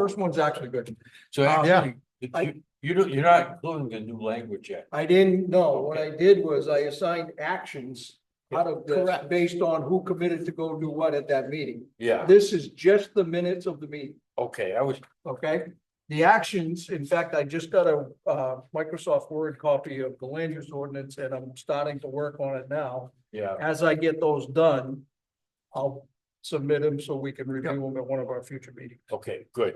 first one's actually good. So Uh, actually, you, I- you don't, you're not including the new language yet. I didn't know. What I did was I assigned actions out of this Correct. based on who committed to go do what at that meeting. Yeah, This is just the minutes of the meeting. okay, I was, okay? The actions, in fact, I just got a uh Microsoft Word copy of the land use ordinance and I'm starting to work on it now. yeah, As I get those done, I'll submit them so we can review them at one of our future meetings. okay, good.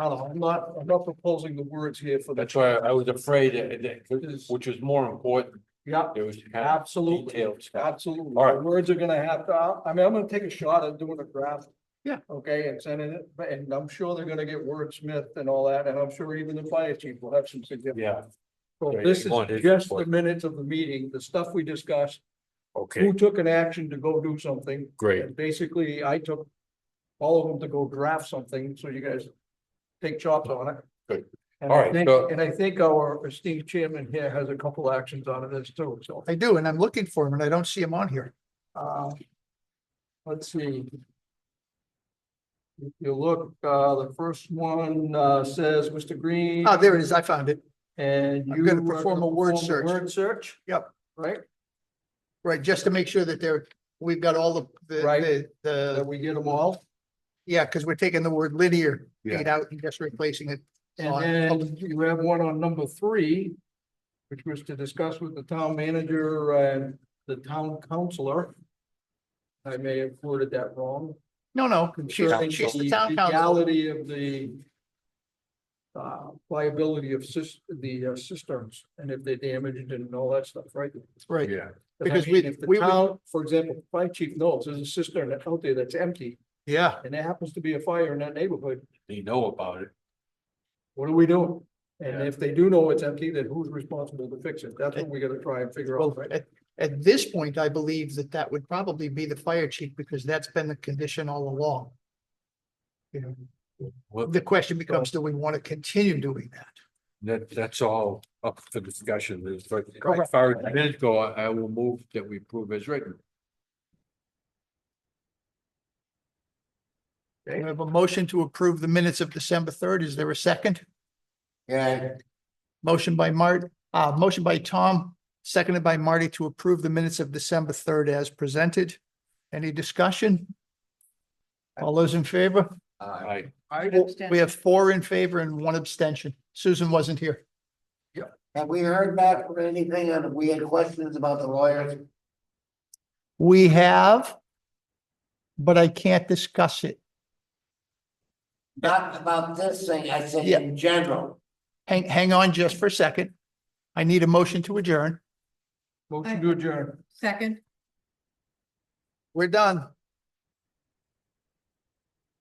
No, no, I'm not, I'm not proposing the words here for the, That's why I was afraid that, that- which was more important, yeah, there was kind of absolutely, detailed stuff. absolutely. All right. The words are gonna have to, I mean, I'm gonna take a shot at doing a draft. Yeah. Okay, and sending it, but- and I'm sure they're gonna get wordsmith and all that, and I'm sure even the fire chief will have some suggestions. Yeah, So Yeah, this you is want his just the report. minutes of the meeting, the stuff we discussed, okay, who took an action to go do something. great. And basically, I took all of them to go draft something, so you guys take chops on it. Good. And All I right, think, so- and I think our esteemed chairman here has a couple actions out of this too, so, I do, and I'm looking for him and I don't see him on here. uh, let's see. If you look, uh, the first one, uh, says, Mr. Green. Ah, there it is. I found it. And you. I'm gonna are perform a word perform search. Word search? Yep. Right? Right, just to make sure that there, we've got all the, the- Right. the, That the, we get them all. yeah, because we're taking the word linear Yeah. eight out and just replacing it. on- And then you have one on number three, which was to discuss with the town manager and the town councilor. I may have worded that wrong. No, no, she's, concerning she's the the town council. Legality of the uh, liability of cis, the uh, cisterns and if they're damaged and all that stuff, right? Right, Yeah, But I Because mean, we- If the we would- town, for example, fire chief knows there's a cistern out there that's empty yeah. and there happens to be a fire in that neighborhood, they know about it. what are we doing? And Yeah. if they do know it's empty, then who's responsible to fix it? That's what we gotta try and figure out, Well, right? at, at this point, I believe that that would probably be the fire chief because that's been the condition all along. You know, Well, the question becomes, do we want to continue doing that? that, that's all up for discussion, It's like- as Correct. far as the minutes go, I, I will move that we approve as written. We have a motion to approve the minutes of December third. Is there a second? Yeah. Motion by Mart, uh, motion by Tom, seconded by Marty to approve the minutes of December third as presented. Any discussion? All those in favor? I, We have four in favor and one abstention. Susan wasn't here. Have we heard back from anything and we had questions about the lawyers? We have, but I can't discuss it. Not about this thing, I said Yeah. in general. Hang, hang on just for a second. I need a motion to adjourn. Motion to adjourn. Second, We're done.